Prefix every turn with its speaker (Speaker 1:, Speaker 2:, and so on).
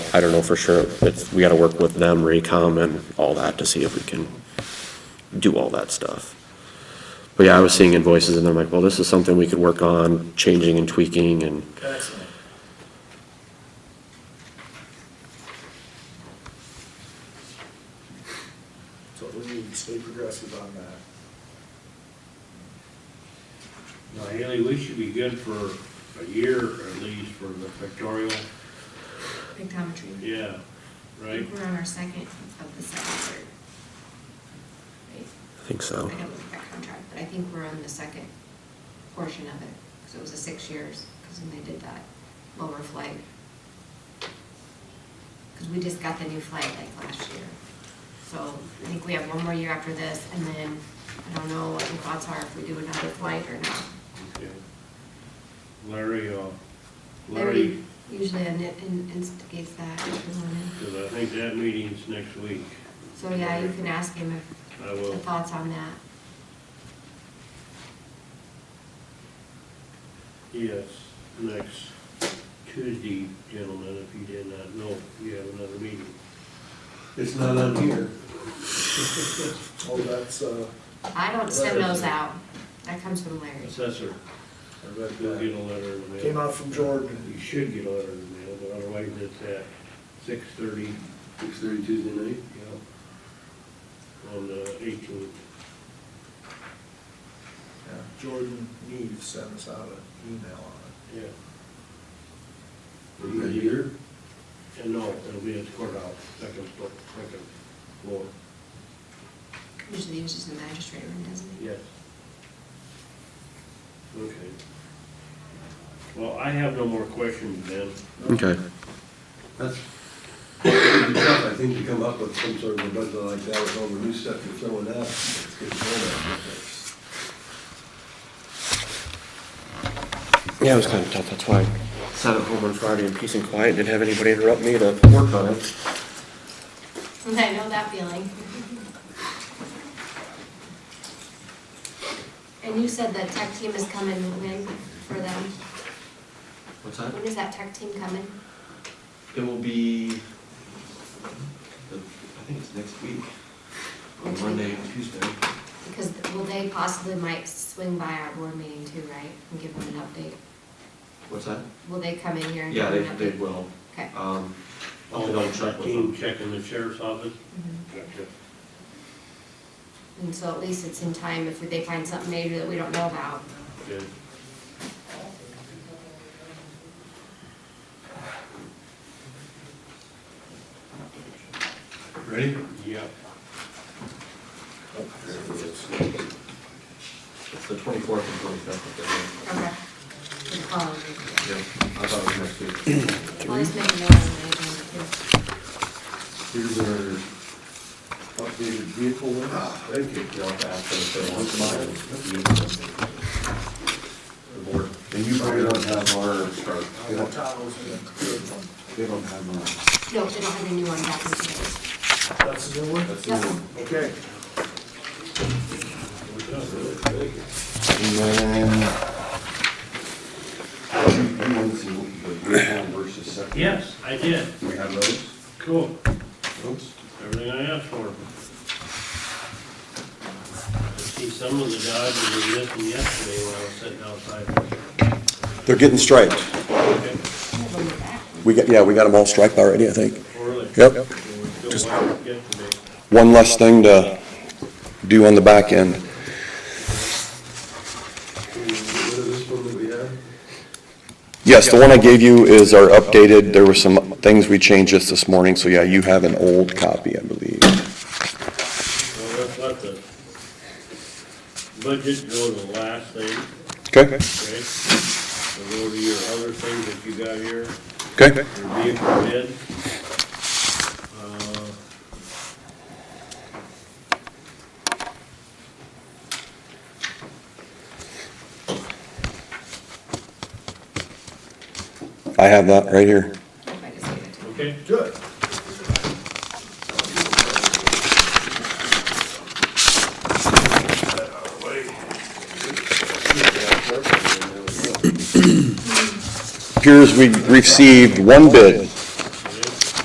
Speaker 1: I don't know for sure. It's, we gotta work with them, Raycom and all that to see if we can do all that stuff. But yeah, I was seeing invoices and I'm like, well, this is something we could work on, changing and tweaking and
Speaker 2: Excellent. So we need to stay progressive on that.
Speaker 3: Now, Haley, we should be good for a year at least for the pictorial,
Speaker 4: Pictometry.
Speaker 3: yeah,
Speaker 4: I
Speaker 3: right?
Speaker 4: think We're on our second of the second, third. Right?
Speaker 1: I think so.
Speaker 4: I don't look at that contract, but I think we're on the second portion of it, because it was a six years, because when they did that lower flight. Because we just got the new flight like last year. So I think we have one more year after this, and then I don't know what the thoughts are if we do another flight or not.
Speaker 3: Okay. Larry, uh,
Speaker 4: Larry
Speaker 3: Larry,
Speaker 4: usually in- in- instigates that if we want to.
Speaker 3: because I think that meeting's next week.
Speaker 4: So yeah, you can ask him if,
Speaker 3: I
Speaker 4: the
Speaker 3: will,
Speaker 4: thoughts on that.
Speaker 3: yes, next Tuesday, gentlemen, if you did not know, you have another meeting.
Speaker 5: It's not on here.
Speaker 2: Oh, that's, uh,
Speaker 4: I don't send those out. That comes from Larry.
Speaker 3: Assessor,
Speaker 2: I read
Speaker 3: you'll
Speaker 2: that.
Speaker 3: get a letter in the mail.
Speaker 2: Came out from Jordan.
Speaker 3: You should get a letter in the mail, but otherwise it's at six thirty,
Speaker 5: Six thirty Tuesday night?
Speaker 3: yeah, on the eighteenth.
Speaker 2: Yeah, Jordan Neve sent us out an email on
Speaker 3: Yeah.
Speaker 5: Right here?
Speaker 3: And no, it'll be at the courthouse, second floor, second floor,
Speaker 4: Usually he was just in the magistrate room, doesn't he?
Speaker 3: yes. Okay. Well, I have no more questions, Ben.
Speaker 1: Okay.
Speaker 5: That's pretty tough, I think, to come up with some sort of a budget like that with all the new stuff you're throwing out. It's getting old.
Speaker 1: Yeah, it was kinda tough. That's why I sat at home on Friday in peace and quiet, didn't have anybody interrupt me to work on it.
Speaker 4: I know that feeling. And you said that tech team is coming when for them?
Speaker 6: What's that?
Speaker 4: When is that tech team coming?
Speaker 6: It will be, the- I think it's next week, on
Speaker 4: Next week.
Speaker 6: Monday, and Tuesday.
Speaker 4: Because will they possibly might swing by our board meeting too, right? And give them an update?
Speaker 6: What's that?
Speaker 4: Will they come in here and give
Speaker 6: Yeah, they,
Speaker 4: them an update?
Speaker 6: they will.
Speaker 4: Okay.
Speaker 6: Um,
Speaker 3: All
Speaker 6: I'll have to double check
Speaker 3: the
Speaker 6: with
Speaker 3: team
Speaker 6: them.
Speaker 3: checking the sheriff's office.
Speaker 4: Mhm.
Speaker 3: Gotcha.
Speaker 4: And so at least it's in time if they find something major that we don't know about.
Speaker 3: Good.
Speaker 6: Ready?
Speaker 3: Yeah.
Speaker 6: It's the twenty-fourth and twenty-fifth.
Speaker 4: Okay. For the following week.
Speaker 6: Yeah, I thought it was next week.
Speaker 4: Well, he's making noise on the agenda too.
Speaker 5: Here's our updated vehicle list.
Speaker 6: Thank you. You'll have to ask them if they want mine. The board.
Speaker 7: And you probably don't have our,
Speaker 2: it. Uh, Tahoe's been a good one.
Speaker 7: they don't have
Speaker 4: No, they don't have a new one back in today.
Speaker 2: That's a new one?
Speaker 7: our,
Speaker 4: Yep.
Speaker 2: Okay.
Speaker 7: and then. You you want to see what the original versus second?
Speaker 3: Yes, I did.
Speaker 7: We have those?
Speaker 3: Cool.
Speaker 7: Oops.
Speaker 3: Everything I asked for. I see some of the Dodge were missing yesterday when I was sitting outside.
Speaker 8: They're getting striped.
Speaker 3: Okay,
Speaker 4: Have them back.
Speaker 8: We got, yeah, we got them all striped already, I think.
Speaker 3: Really?
Speaker 8: Yep.
Speaker 3: Still wired yesterday.
Speaker 8: One less thing to do on the back end.
Speaker 5: Get rid of this one that we have.
Speaker 8: Yes, the one I gave you is our updated, there were some things we changed just this morning, so yeah, you have an old copy, I believe.
Speaker 3: Well, let's let the budget go to the last thing,
Speaker 8: Okay,
Speaker 3: okay? We'll go to your other things that you got here,
Speaker 8: okay.
Speaker 3: your vehicle bid. Uh,
Speaker 8: I have that right here.
Speaker 4: If I just gave it to them.
Speaker 3: Okay,
Speaker 2: Good.
Speaker 8: Appears we received one bid